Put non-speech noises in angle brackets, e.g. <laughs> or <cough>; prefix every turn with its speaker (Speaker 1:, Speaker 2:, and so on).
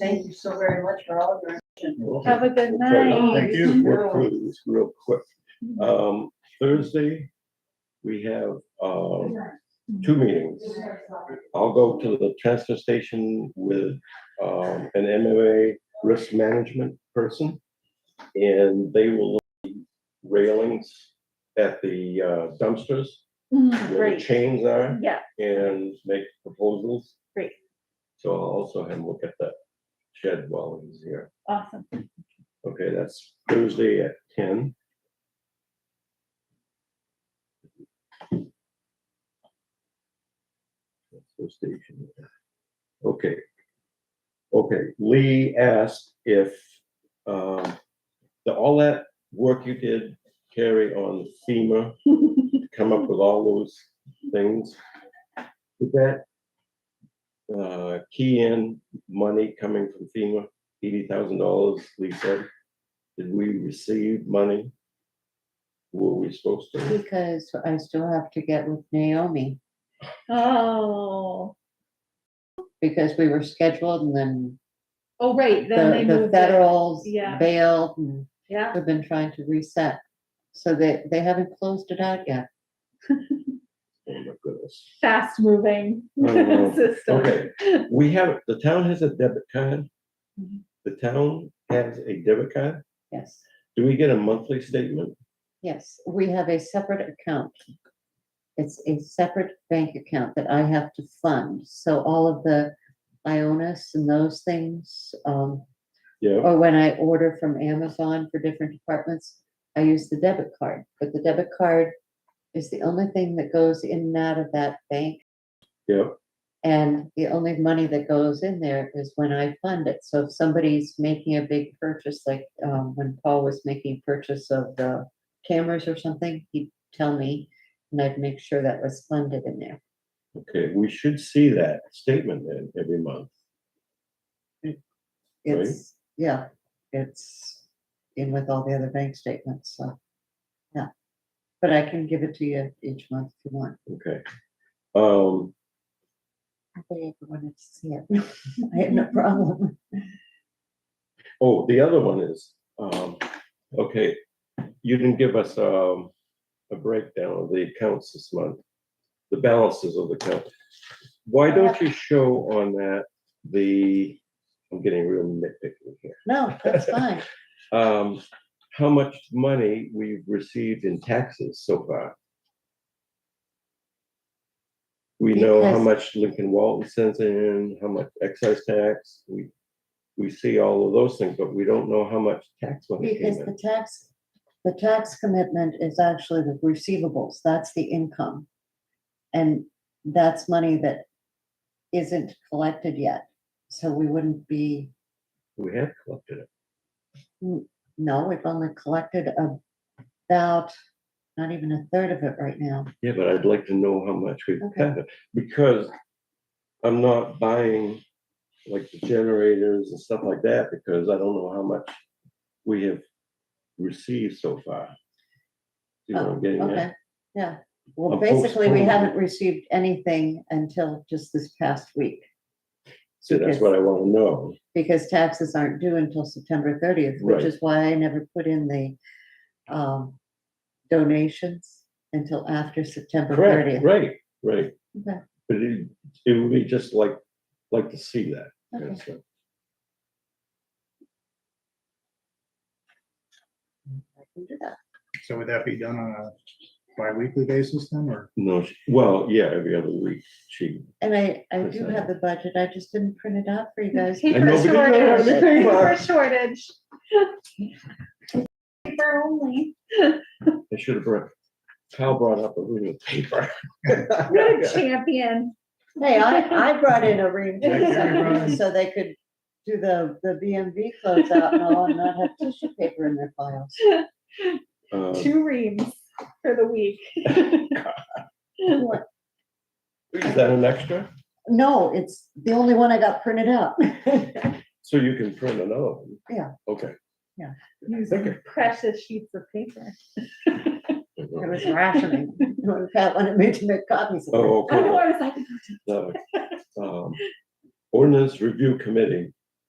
Speaker 1: Thank you so very much for all of your attention.
Speaker 2: Thank
Speaker 3: Have a good night. Mm-hmm.
Speaker 2: you. Work through this real quick. Um, Thursday, we have, um, two meetings. I'll go to the transfer station with, um, an MMA risk management person. And they will look at railings at the uh, dumpsters
Speaker 3: Mm,
Speaker 2: where the
Speaker 3: Great,
Speaker 2: chains are
Speaker 3: yeah,
Speaker 2: and make proposals.
Speaker 3: Great.
Speaker 2: So I'll also have him look at that shed while he's here.
Speaker 3: awesome.
Speaker 2: Okay, that's Thursday at ten. Transfer station. Okay. Okay, Lee asked if, um, the, all that work you did, Carrie, on FEMA, to come up with all those things, did that, uh, key in money coming from FEMA? eighty thousand dollars, we said. Did we receive money? Were we supposed to?
Speaker 4: Because I still have to get with Naomi,
Speaker 3: Oh,
Speaker 4: because we were scheduled and then
Speaker 3: oh, right, then
Speaker 4: the,
Speaker 3: they
Speaker 4: the
Speaker 3: moved it.
Speaker 4: federals
Speaker 3: Yeah.
Speaker 4: bailed and
Speaker 3: Yeah,
Speaker 4: we've been trying to reset. So they, they haven't closed it out yet.
Speaker 2: Oh my goodness.
Speaker 3: fast moving
Speaker 2: Oh,
Speaker 3: <laughs> system.
Speaker 2: Okay, we have, the town has a debit card.
Speaker 4: Mhm.
Speaker 2: The town has a debit card.
Speaker 4: Yes,
Speaker 2: Do we get a monthly statement?
Speaker 4: yes, we have a separate account. It's a separate bank account that I have to fund, so all of the Ionis and those things, um,
Speaker 2: Yeah,
Speaker 4: or when I order from Amazon for different departments, I use the debit card, but the debit card is the only thing that goes in and out of that bank.
Speaker 2: yeah,
Speaker 4: And the only money that goes in there is when I fund it. So if somebody's making a big purchase, like um, when Paul was making purchase of the cameras or something, he'd tell me and I'd make sure that was funded in there.
Speaker 2: okay, we should see that statement then every month. Right.
Speaker 4: It's, yeah, it's in with all the other bank statements, so, yeah. But I can give it to you each month if you want.
Speaker 2: Okay. Um,
Speaker 4: I think I wanted to see it. <laughs> I had no problem.
Speaker 2: Oh, the other one is, um, okay, you didn't give us, um, a breakdown of the accounts this month, the balances of the account. Why don't you show on that the, I'm getting real nitpicky here,
Speaker 4: No, that's fine.
Speaker 2: um, how much money we've received in taxes so far? We know how
Speaker 4: Because-
Speaker 2: much Lincoln Walton sends in, how much excise tax, we, we see all of those things, but we don't know how much tax money
Speaker 4: Because
Speaker 2: came in.
Speaker 4: the tax, the tax commitment is actually the receivables, that's the income. And that's money that isn't collected yet. So we wouldn't be,
Speaker 2: We have collected it.
Speaker 4: no, we've only collected about, not even a third of it right now.
Speaker 2: Yeah, but I'd like to know how much we've
Speaker 4: Okay.
Speaker 2: got, because I'm not buying like the generators and stuff like that, because I don't know how much we have received so far. You know, what I'm getting
Speaker 4: Oh, Okay,
Speaker 2: at,
Speaker 4: yeah. Well,
Speaker 2: Of
Speaker 4: basically, we
Speaker 2: postponement.
Speaker 4: haven't received anything until just this past week
Speaker 2: so that's what I want to know.
Speaker 4: because taxes aren't due until September thirtieth,
Speaker 2: Right.
Speaker 4: which is why I never put in the um, donations until after September
Speaker 2: Correct,
Speaker 4: thirtieth.
Speaker 2: right, right.
Speaker 4: Okay.
Speaker 2: But it, it would be just like, like to see that.
Speaker 4: Okay.
Speaker 2: that's all.
Speaker 5: So would that be done on a bi-weekly basis then, or?
Speaker 2: No, she- well, yeah, every other week, she.
Speaker 4: And I, I do
Speaker 2: Percent.
Speaker 4: have the budget, I just didn't print it out for you guys.
Speaker 3: Paper
Speaker 2: nobody knows how to
Speaker 3: shortage,
Speaker 2: make paper.
Speaker 3: paper shortage. Paper only.
Speaker 2: I should have brought, Kyle brought up a ream of
Speaker 4: <laughs>
Speaker 2: paper.
Speaker 3: What a champion.
Speaker 4: Hey, I, I brought in a ream
Speaker 3: Yeah,
Speaker 4: too,
Speaker 5: Gary brought
Speaker 4: <laughs> so-
Speaker 5: in-
Speaker 4: so they could do the, the BMV closeout and all and not have tissue paper in their files.
Speaker 2: Um,
Speaker 3: Two reams for the
Speaker 2: <laughs>
Speaker 3: week.
Speaker 2: Is that an extra?
Speaker 4: No, it's the only one I got printed out. <laughs>
Speaker 2: So you can print another one?
Speaker 4: Yeah.
Speaker 2: Okay.
Speaker 3: Using precious sheets of paper.
Speaker 4: It was rationing. <laughs> When Pat wanted me to make copies. of it.
Speaker 2: Oh,
Speaker 3: I know,
Speaker 2: okay.
Speaker 3: I was like,
Speaker 2: So, um, Ordinance Review Committee,